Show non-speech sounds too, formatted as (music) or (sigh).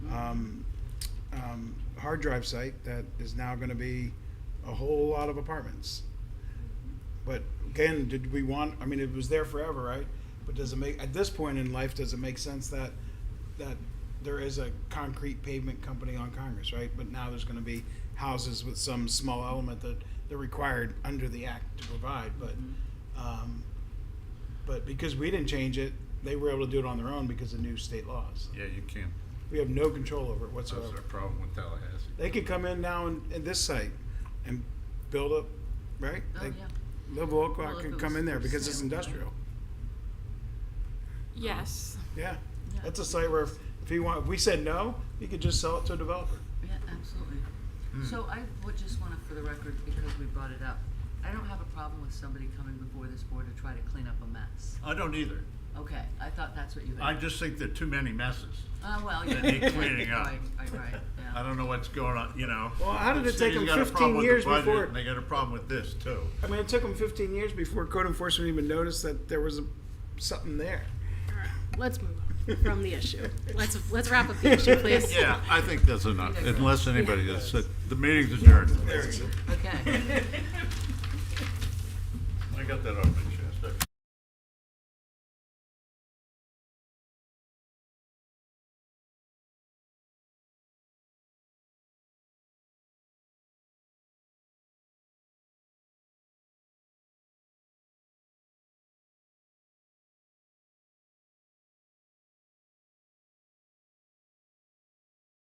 um, hard drive site that is now gonna be a whole lot of apartments. But again, did we want, I mean, it was there forever, right? But does it make, at this point in life, does it make sense that, that there is a concrete pavement company on Congress, right? But now there's gonna be houses with some small element that they're required under the act to provide, but, um, but because we didn't change it, they were able to do it on their own because of new state laws. Yeah, you can. We have no control over it That's our whatsoever. problem with Tallahassee. They could come in now in, in this site and build up, right? Oh, Like, yeah. Live Oakland Well, if can it come was in there for because it's sale, right? industrial. Yes. Yeah. Yeah. That's a site where if, if he want, if we said no, he could just sell it to a developer. Yeah, absolutely. Hmm. So I would just wanna, for the record, because we brought it up, I don't have a problem with somebody coming before this board to try to clean up a mess. I don't either. Okay, I thought that's what you had. I just think there are too many messes. Oh, well, yeah. that need cleaning up. (laughs) Right, right, right, yeah. I don't know what's going on, you know. Well, how did it The take city's them got a 15 problem with the years budget, before- and They got a problem with this too. I mean, it took them fifteen years before code enforcement even noticed that there was a, something there. All right. Let's move on from the issue. Let's let's wrap up the issue, please. Yeah, I think that's enough, Yeah. unless anybody is, the meeting's adjourned. There it is. Okay. I got that off my chest.